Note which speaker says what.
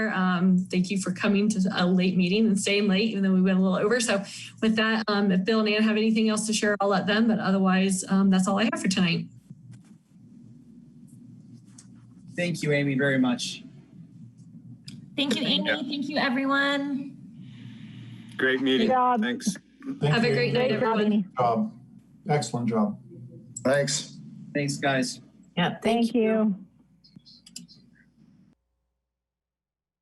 Speaker 1: Um, thank you for coming to a late meeting and staying late, even though we went a little over. So with that, um, if Bill and Ann have anything else to share, I'll let them, but otherwise, um, that's all I have for tonight.
Speaker 2: Thank you, Amy, very much.
Speaker 3: Thank you, Amy. Thank you, everyone.
Speaker 4: Great meeting.
Speaker 5: job.
Speaker 4: Thanks.
Speaker 6: Thank
Speaker 1: Have a
Speaker 6: you.
Speaker 1: great night,
Speaker 5: Great job,
Speaker 1: everyone.
Speaker 5: Amy.
Speaker 6: Good job. Excellent job.
Speaker 7: Thanks.
Speaker 2: Thanks, guys.
Speaker 8: Yeah,
Speaker 5: Thank you.